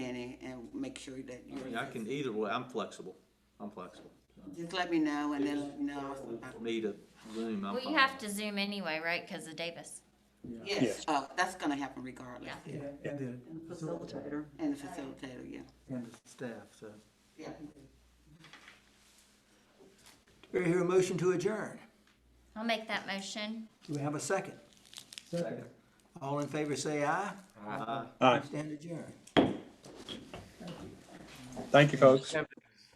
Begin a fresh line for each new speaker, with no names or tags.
make sure that
I
you
mean, I can, either way, I'm flexible, I'm flexible.
just let me know and then let me know.
Need a Zoom, I'm
Well, you
fine.
have to Zoom anyway, right, because of Davis?
Yes, uh, that's gonna happen regardless.
Yeah.
Yeah, and then,
And the facilitator. And the facilitator, yeah.
and the staff, so.
Yeah.
Do we hear a motion to adjourn?
I'll make that motion.
Do we have a second? Second. All in favor, say aye. Aye. Stand adjourned.
Thank you, folks.